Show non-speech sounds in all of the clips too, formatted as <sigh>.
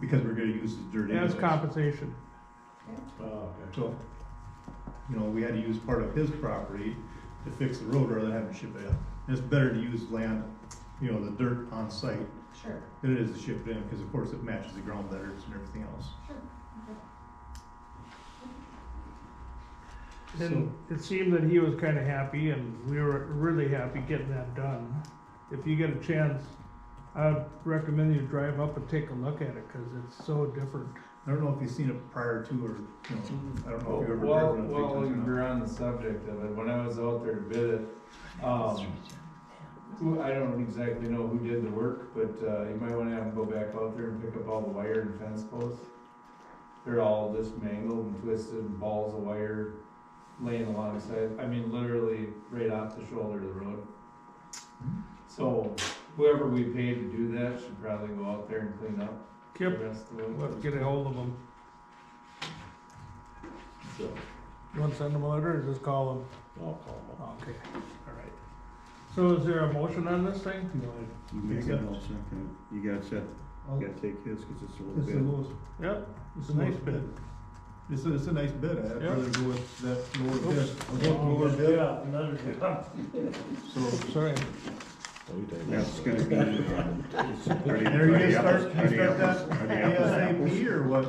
because we're gonna use his dirt anyways. as compensation. Oh, okay. So, you know, we had to use part of his property to fix the road rather than having to ship it in. It's better to use land, you know, the dirt on site Sure, than it is to ship it in, because of course it matches the ground better and everything else. sure. Okay. And it seemed that he was kinda happy and we were really happy getting that done. If you get a chance, I'd recommend you drive up and take a look at it, cause it's so different. I don't know if you've seen it prior to, or, you know, I don't know if you've ever Well, driven it. well, we're on the subject of it, when I was out there to bid it, um, who, I don't exactly know who did the work, but, uh, you might wanna have them go back out there and pick up all the wire and fence posts. They're all just mangled and twisted, and balls of wire laying alongside, I mean, literally right off the shoulder of the road. So whoever we paid to do that should probably go out there and clean up the Kip, rest of we'll have to it, get a hold of him. so. You wanna send him a letter or just call him? I'll call them. Okay, alright. So is there a motion on this thing? You know, it- You make it, I'll second it. You gotta set, I'll- you gotta take his, cause it's a little It's the bit. lowest, Yep, it's it's the a nice lowest bid. bid. It's a, it's a nice bid, I'd Yeah. rather go with that lower bid, Oops. I'll go with the lower another bid, so. Sorry. That's gonna be. There Are you gonna start, you start that ASAP or what?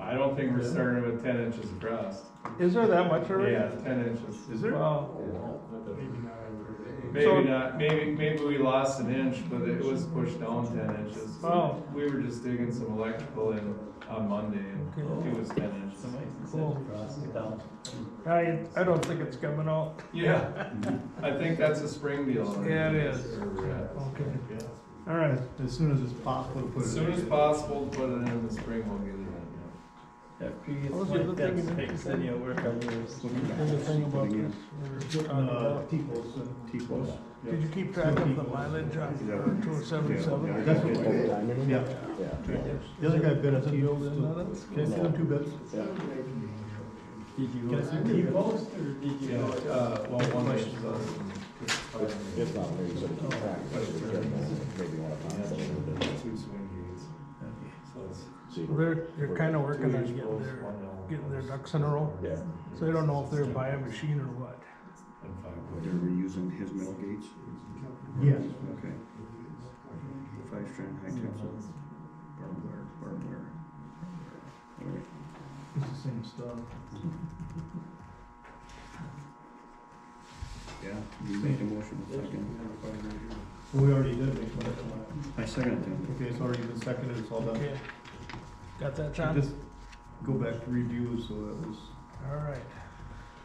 I don't think we're starting with ten inches across. Is there that much already? Yeah, ten inches. Is there? Wow. So- Maybe not, maybe, maybe we lost an inch, but it was pushed down ten inches. Wow. We were just digging some electrical in on Monday and Okay. it was ten inches. Cool. I, I don't think it's coming out. Yeah, I think that's a spring deal. Yeah, it is. Okay. Okay. All right. As soon as it's possible to put it. As soon in. as possible, put it in the spring, we'll get it in. After you What was get the one other thing fence in there? fixed, then you'll work on yours. There's a thing about this. Putting, uh, T-posts in. T-post. Did you keep track of the mileage on two oh seven Yeah. seven? That's what we did. Yeah, the other guy bid us T-posts. Nothing? Can I see them two bids? Did you? Can I see the post or did Yeah, uh, well, one inch is us. If not, maybe sort of keep track, but if we get more, maybe one of them, Two swing gates. So it's- so you can- They're, they're kinda working on Two getting posts, their, one down. getting their ducks in a row. Yeah. So I don't know if they're buying a machine or what. And five They're reusing his mill gates? Yes. Okay. Five strand high tensile. Barbed wire, barbed wire. Alright. It's the same stuff. Yeah, you made a motion, I'll second. We already did make one. that's why. I second it then. Okay, it's already been seconded, it's all done. Okay. Got that, John? Just go back to review, so that was All right.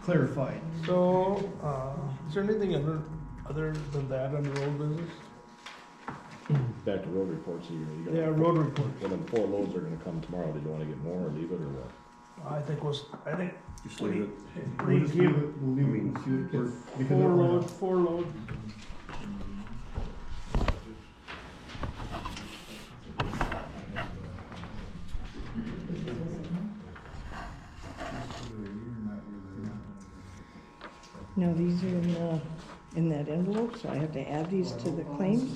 clarified. So, uh, is there anything other, other than that under old business? back to road reports here, you got. Yeah, road report. Well, then four loads are gonna come tomorrow, did you wanna get more or leave it or what? I think was, I think, Just leave it. We'll just leave it, we'll leave it in the future, because Four it went up. load, four load. No, these are in the, in that envelope, so I have to add these to the claims?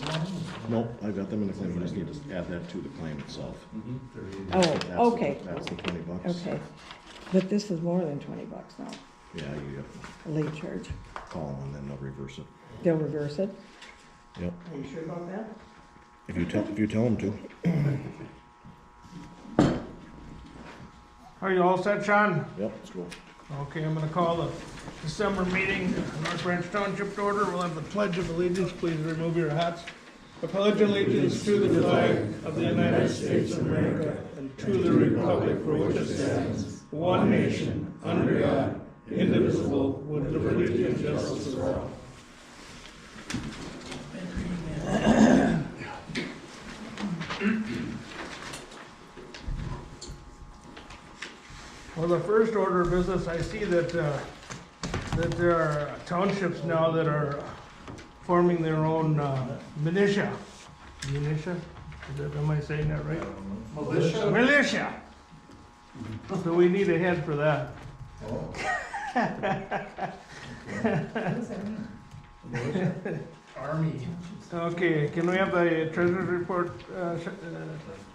Nope, I got them in the claim, I just need to add that to the claim itself. Oh, That's the- okay, That's the twenty bucks. okay. But this is more than twenty bucks now, Yeah, you have a late charge. to call them and then they'll reverse it. They'll reverse it? Yep, Are you sure about that? if you tell, if you tell them to. Are you all set, Sean? Yep, let's go. Okay, I'm gonna call the December meeting, North Branch Township to order. We'll have the pledge of allegiance. Please remove your hats. I pledge allegiance to the flag of the United States of America and to the republic for which it stands, one nation, under God, indivisible, with liberty and justice for all. Well, the first order of business, I see that, uh, that there are townships now that are forming their own, uh, militia. Militia? Is that, am I saying that right? Militia? Militia! So we need a head for that. <laughs> What does that mean? Okay, can we have the treasurer's report, uh, Sh- uh,